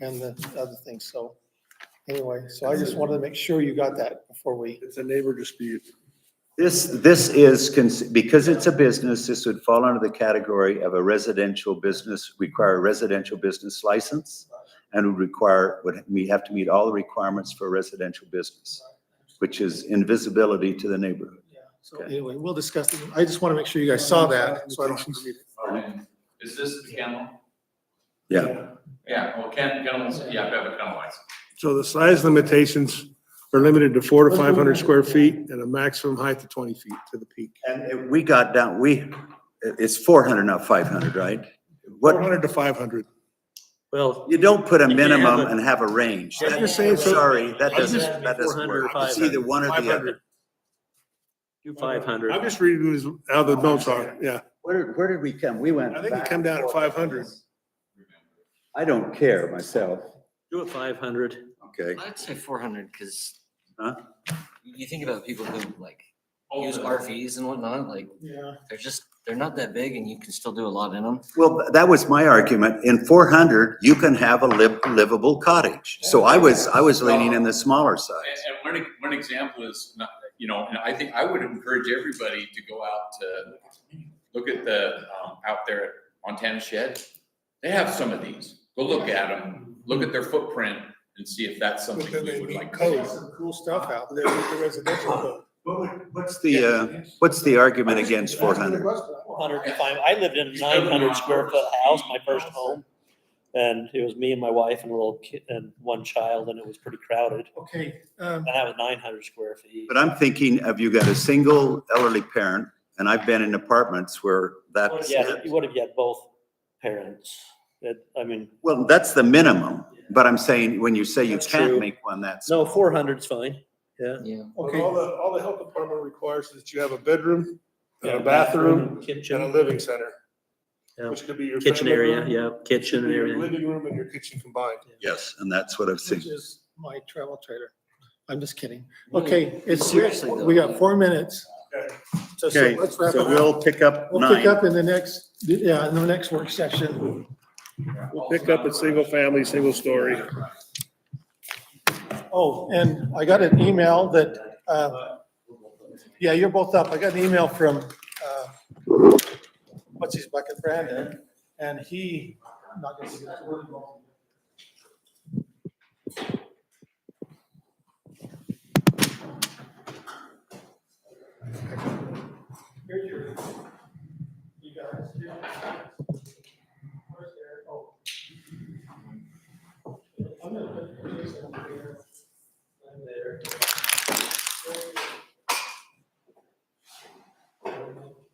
and the other things, so. Anyway, so I just wanted to make sure you got that before we, It's a neighbor dispute. This, this is, cons- because it's a business, this would fall under the category of a residential business, require a residential business license, and would require, would we have to meet all the requirements for a residential business, which is invisibility to the neighborhood. so anyway, we'll discuss it. I just want to make sure you guys saw that, so I don't have to read it. And Is this the kennel? Yeah. Yeah, well, ken, kennels, yeah, I have a kennel license. So the size limitations are limited to four to five hundred square feet and a maximum height of twenty feet to the peak. And it- we got down, we, it- it's four hundred, not five hundred, right? Four What, hundred to five hundred. Well, you don't put a You can't have minimum a- and have a range. I was That- gonna say, so- Sorry, that I was just- doesn't, that doesn't 400 or work. It's either one or the other. do five I'm hundred. just reading these- how the notes are, yeah. Where, did- where did we come? We went I think it back come and down at forth. five hundred. I don't care myself. Do it five hundred. Okay. I'd say four hundred, cause Huh? you think about people who like Oh, use the- RVs and whatnot, like Yeah. they're just, they're not that big and you can still do a lot in them. Well, th- that was my argument. In four hundred, you can have a liv- livable cottage. So I was, I was leaning in the smaller And, side. and one, e- one example is not, you know, and I think I would encourage everybody to go out to, look at the, um, out there at Montana Shed. They have some of these. Go look at them, look at their footprint and see if that's But something then we they would meet like. to code. do. Some cool stuff out there. The residential code. What's the, uh, what's the argument against four hundred? Hundred and five. I lived in a nine hundred square foot house, my first home. And it was me and my wife and a little kid and one child and it was pretty crowded. Okay, um, And that was nine hundred square feet. But I'm thinking of you got a single elderly parent, and I've been in apartments where that's Yeah, it. you would have had both parents. That, I mean, Well, that's the minimum, but I'm saying, when you say you That's can't true. make one, that's. no, four hundred's fine. Yeah. Yeah. okay. All the, all the health department requires is that you have a bedroom, and Yeah, a bathroom, and a Kitchen, living center. Yeah. Which could be your. kitchen family area, room, yeah, kitchen could be and your area. Living room and your kitchen combined. Yes, and that's what I've seen. Which is my travel trailer. I'm just kidding. Really? Okay, it's, Seriously, though. we got four minutes. Okay. So, so Okay, let's wrap so it up. we'll pick up We'll pick nine. up in the next, yeah, in the next work session. Pick up a single family, single story. Oh, and I got an email that, uh, yeah, you're both up. I got an email from, uh, what's his bucket, Brandon, and he, I'm not gonna say that word. Here's your, you guys. Where's Eric? Oh. I'm gonna put these over here. I'm there.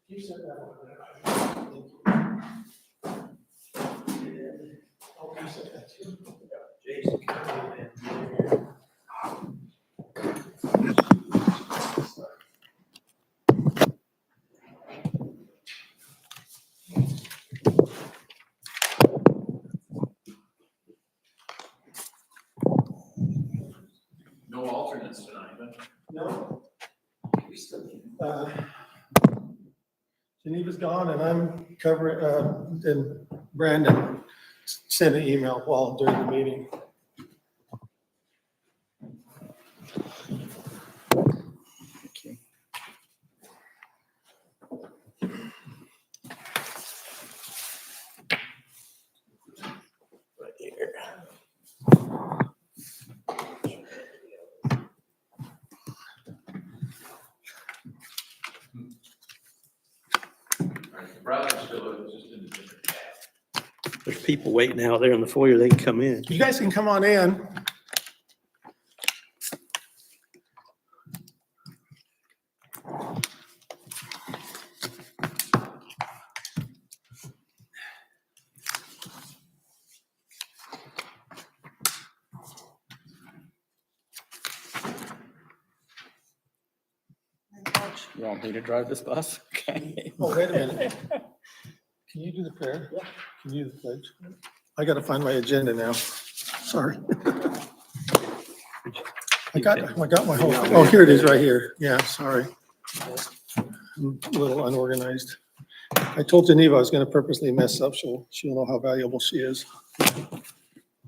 You said that one. Oh, you said that too. No alternates tonight, but. No. Uh, Geneva's gone and I'm covering, uh, and Brandon s- sent an email while during the meeting. Brother's still, just in a different. There's people waiting out there in the foyer. They can come in. You guys can come on in. You want me to drive this bus? Okay. Oh, wait a minute. Can you do the prayer? Yeah. Can you do the pledge? I gotta find my agenda now. Sorry. I got, I got my whole, oh, here it is right here. Yeah, sorry. I'm A little unorganized. I told Geneva I was gonna purposely mess up, so she'll know how valuable she is.